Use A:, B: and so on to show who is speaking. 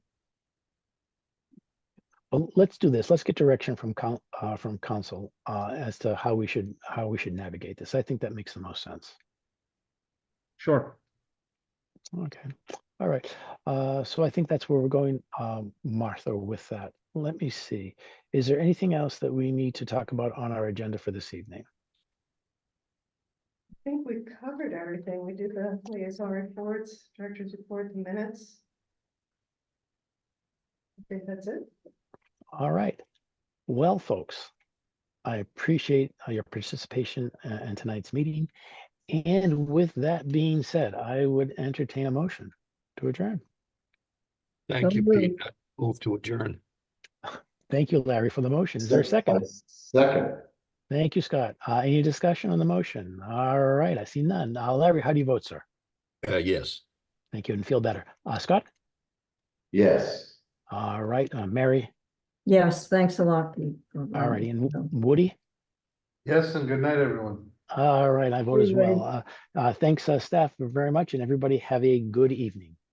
A: Well, let's do this. Let's get direction from coun- uh, from council, uh, as to how we should, how we should navigate this. I think that makes the most sense.
B: Sure.
A: Okay, all right. Uh, so I think that's where we're going, um, Martha, with that. Let me see. Is there anything else that we need to talk about on our agenda for this evening?
C: I think we covered everything. We did the liaison reports, director's report, the minutes. I think that's it.
A: All right. Well, folks, I appreciate uh, your participation uh, in tonight's meeting. And with that being said, I would entertain a motion to adjourn.
D: Thank you,
B: Number-
D: Pete. I Move to adjourn.
A: Thank you, Larry, for the motion. Is there a second?
B: Second.
A: Thank you, Scott. Uh, any discussion on the motion? All right, I see none. Uh, Larry, how do you vote, sir?
D: Uh, yes.
A: Thank you and feel better. Uh, Scott?
B: Yes.
A: All right, uh, Mary?
E: Yes, thanks a lot. Pete.
A: All righty, and
E: Um,
A: Woody?
B: Yes, and good night, everyone.
A: All right, I vote as
E: Woody, right.
A: well. Uh, uh, thanks, uh, staff very much and everybody have a good evening.